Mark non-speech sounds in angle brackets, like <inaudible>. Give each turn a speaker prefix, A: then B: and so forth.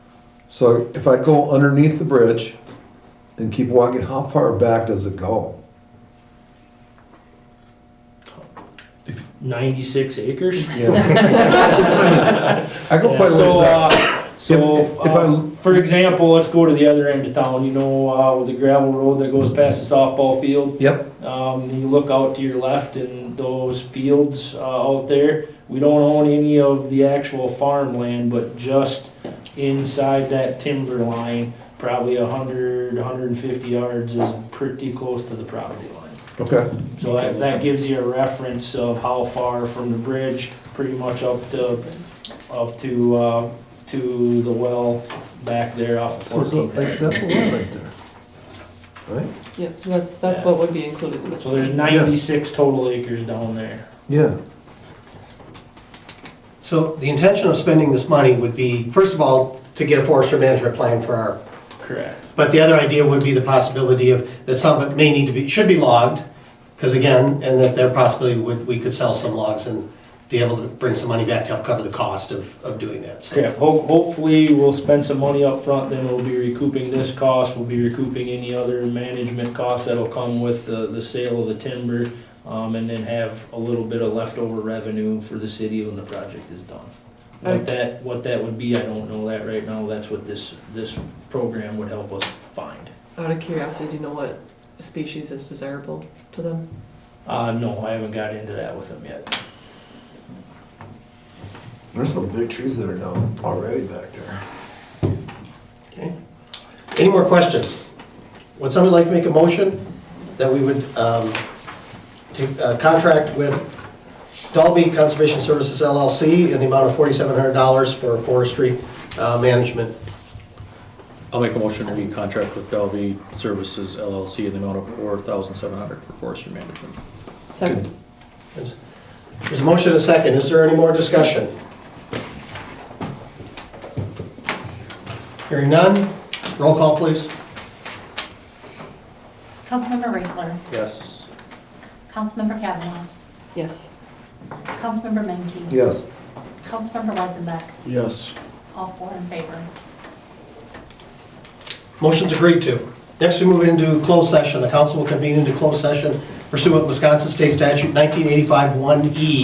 A: So if I go underneath the bridge and keep walking, how far back does it go?
B: Ninety-six acres?
A: Yeah. <laughs> I go quite a
B: So,
A: ways back.
B: uh, so,
A: If- if
B: uh,
A: I-
B: for example, let's go to the other end of town, you know, uh, with the gravel road that goes past the softball field.
A: Yep,
B: Um, you look out to your left and those fields, uh, out there, we don't own any of the actual farmland, but just inside that timber line, probably a hundred, hundred and fifty yards is pretty close to the property line.
A: okay.
B: So that, that gives you a reference of how far from the bridge, pretty much up to, up to, uh, to the well back there off of
A: So, so like,
B: fourteen.
A: that's a lot right there. Right?
C: Yep, so that's, that's what would be included in this.
B: So there's ninety-six total acres down there.
A: Yeah,
D: So the intention of spending this money would be, first of all, to get a forestry management plan for our,
B: Correct.
D: but the other idea would be the possibility of, that some of it may need to be, should be logged, because again, and that there possibly would, we could sell some logs and be able to bring some money back to help cover the cost of, of doing that. So
B: Yeah, ho- hopefully we'll spend some money up front. then we'll be recouping this cost, we'll be recouping any other management costs that'll come with the, the sale of the timber, um, and then have a little bit of leftover revenue for the city when the project is done. What
C: Okay.
B: that, what that would be, I don't know that right now, that's what this, this program would help us find.
C: Out of curiosity, do you know what species is desirable to them?
B: Uh, no, I haven't got into that with them yet.
A: there's some big trees that are down already back there.
D: okay. Any more questions? Would somebody like to make a motion that we would um, take a contract with Dalby Conservation Services LLC in the amount of $4,700 for forestry uh, management?
E: I'll make a motion to recontract with Dalby Services LLC in the amount of four thousand seven hundred for forestry management.
C: Second,
D: There's a motion and a second. Is there any more discussion? Hearing none. Roll call, please.
F: Councilmember Raisler,
E: Yes.
F: Councilmember Kavanaugh,
C: yes.
F: Councilmember Menke,
A: Yes,
F: Councilmember Weisenbeck,
E: Yes.
F: all four in favor.
D: Motion's agreed to. Next, we move into closed session. The council will convene into closed session pursuant to Wisconsin State Statute 1985 one e